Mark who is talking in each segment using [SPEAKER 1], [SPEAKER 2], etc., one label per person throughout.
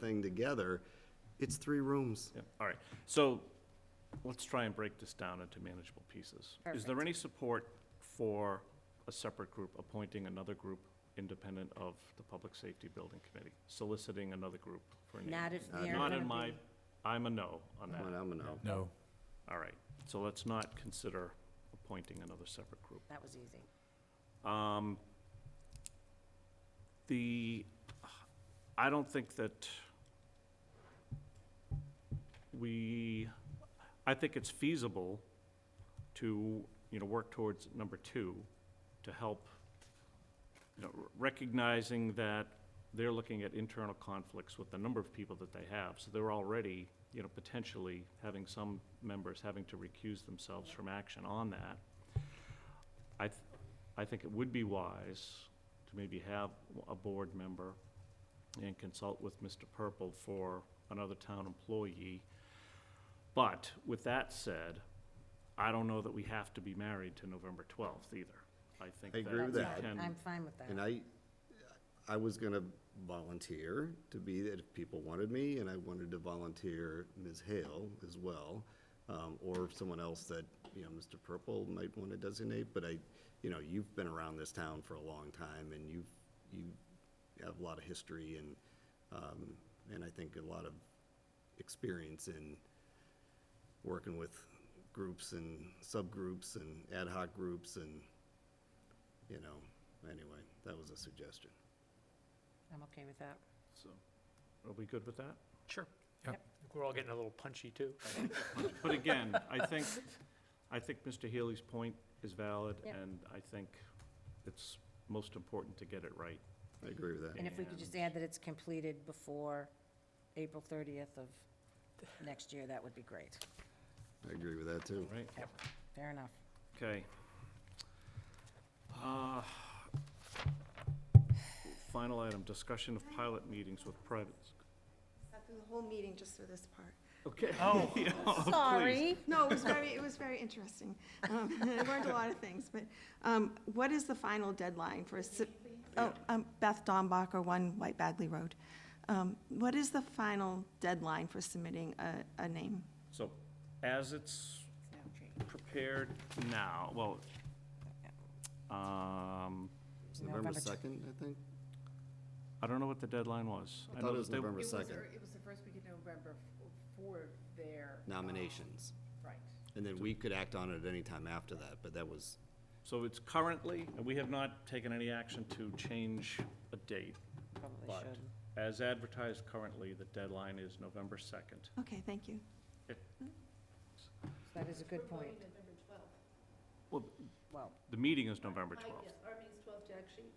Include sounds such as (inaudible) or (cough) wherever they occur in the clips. [SPEAKER 1] thing together, it's three rooms.
[SPEAKER 2] Yeah, all right. So let's try and break this down into manageable pieces. Is there
[SPEAKER 3] Perfect.
[SPEAKER 2] any support for a separate group appointing another group independent of the Public Safety Building Committee, soliciting another group for a name?
[SPEAKER 3] Not if
[SPEAKER 1] Not
[SPEAKER 3] they're
[SPEAKER 2] Uh, Not
[SPEAKER 3] gonna
[SPEAKER 2] in my,
[SPEAKER 3] be-
[SPEAKER 2] I'm a no on
[SPEAKER 1] Come on,
[SPEAKER 2] that.
[SPEAKER 1] I'm a no.
[SPEAKER 4] No.
[SPEAKER 2] All right. So let's not consider appointing another separate group.
[SPEAKER 3] That was easy.
[SPEAKER 2] Um, The, I don't think that we, I think it's feasible to, you know, work towards number two, to help, you know, r- recognizing that they're looking at internal conflicts with the number of people that they have, so they're already, you know, potentially having some members having to recuse themselves from action on that. I, th- I think it would be wise to maybe have a board member and consult with Mr. Purple for another town employee. But with that said, I don't know that we have to be married to November twelfth either. I think
[SPEAKER 1] I
[SPEAKER 2] that
[SPEAKER 1] agree
[SPEAKER 2] we
[SPEAKER 1] with that.
[SPEAKER 2] can.
[SPEAKER 3] I'm fine with that.
[SPEAKER 1] And I, I was gonna volunteer to be, that if people wanted me, and I wanted to volunteer Ms. Hale as well, um, or someone else that, you know, Mr. Purple might wanna designate, but I, you know, you've been around this town for a long time, and you've, you have a lot of history and, um, and I think a lot of experience in working with groups and subgroups and ad hoc groups and, you know, anyway, that was a suggestion.
[SPEAKER 3] I'm okay with that.
[SPEAKER 2] So, Are we good with that?
[SPEAKER 5] Sure.
[SPEAKER 4] Yeah.
[SPEAKER 5] We're all getting a little punchy, too.
[SPEAKER 2] But again, I think, I think Mr. Healy's point is valid,
[SPEAKER 3] Yep.
[SPEAKER 2] and I think it's most important to get it right.
[SPEAKER 1] I agree with that.
[SPEAKER 3] And if we could just add that it's completed before April 30th of next year, that would be great.
[SPEAKER 1] I agree with that too.
[SPEAKER 2] Right?
[SPEAKER 3] Fair enough.
[SPEAKER 2] Okay. Uh, Final item, discussion of pilot meetings with privates.
[SPEAKER 6] Sat through the whole meeting just for this part.
[SPEAKER 2] Okay. (laughs) Oh.
[SPEAKER 3] Sorry.
[SPEAKER 6] No, (laughs) it was very, it was very interesting. Um, (laughs) I learned a lot of things, but um, what is the final deadline for, a sub- oh, um, Beth Dombacher, One White Bagley Road. Um, What is the final deadline for submitting a, a name?
[SPEAKER 2] So as it's prepared now, well, um,
[SPEAKER 1] It's
[SPEAKER 3] November
[SPEAKER 1] November
[SPEAKER 3] tw-
[SPEAKER 1] second, I think?
[SPEAKER 2] I don't know what the deadline was.
[SPEAKER 1] I
[SPEAKER 2] know
[SPEAKER 1] thought it was
[SPEAKER 2] that they-
[SPEAKER 1] November
[SPEAKER 7] It was,
[SPEAKER 1] second.
[SPEAKER 7] ear- it was the first week of November f- for their. um,
[SPEAKER 1] Nominations.
[SPEAKER 7] Right.
[SPEAKER 1] And then we could act on it at any time after that, but that was,
[SPEAKER 2] So it's currently, and we have not taken any action to change a date,
[SPEAKER 3] Probably
[SPEAKER 2] but
[SPEAKER 3] should.
[SPEAKER 2] as advertised currently, the deadline is November second.
[SPEAKER 6] Okay, thank you.
[SPEAKER 3] That is a good point.
[SPEAKER 7] November twelfth.
[SPEAKER 2] Well,
[SPEAKER 3] Well,
[SPEAKER 2] the meeting is November twelfth.
[SPEAKER 7] Our meeting's twelve to actually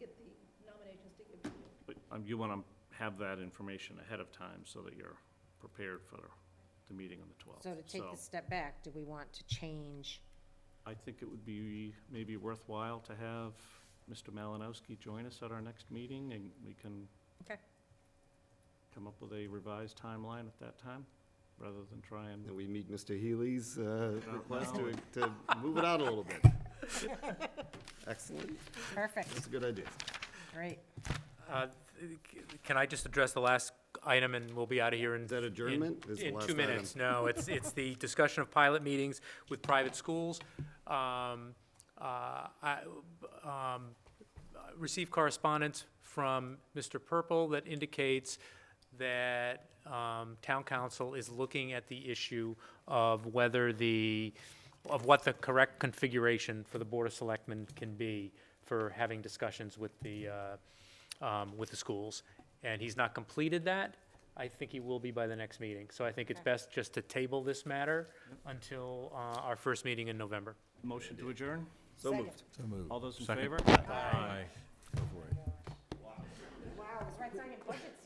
[SPEAKER 7] get the nominations to give to you.
[SPEAKER 2] But um, you want to have that information ahead of time so that you're prepared for the meeting on the
[SPEAKER 3] so
[SPEAKER 2] 12th.
[SPEAKER 3] to take a step back, do we want to change?
[SPEAKER 2] I think it would be maybe worthwhile to have Mr. Malinowski join us at our next meeting, and we can
[SPEAKER 3] Okay.
[SPEAKER 2] come up with a revised timeline at that time, rather than try and,
[SPEAKER 1] then we meet Mr. Healy's, uh,
[SPEAKER 2] No,
[SPEAKER 1] request
[SPEAKER 2] no.
[SPEAKER 1] to, to move it out a little bit. Excellent.
[SPEAKER 3] Perfect,
[SPEAKER 1] That's a good idea.
[SPEAKER 3] great.
[SPEAKER 5] Uh, th- c- Can I just address the last item, and we'll be out of here in...
[SPEAKER 1] Is that
[SPEAKER 5] in-
[SPEAKER 1] adjournment? Is the
[SPEAKER 5] In
[SPEAKER 1] last
[SPEAKER 5] two
[SPEAKER 1] item.
[SPEAKER 5] minutes, no. It's, it's the discussion of pilot meetings with private schools. Um, uh, I um, uh, received correspondence from Mr. Purple that indicates that um, town council is looking at the issue of whether the, of what the correct configuration for the Board of Selectmen can be for having discussions with the, uh, um, with the schools. And he's not completed that. I think he will be by the next meeting. So I think it's best just to table this matter until uh, our first meeting in November.
[SPEAKER 2] motion to adjourn?
[SPEAKER 1] So
[SPEAKER 3] Second.
[SPEAKER 1] moved.
[SPEAKER 4] So moved.
[SPEAKER 2] All those in favor?
[SPEAKER 4] Aye. Go for it.
[SPEAKER 3] Wow, it was right, signing budgets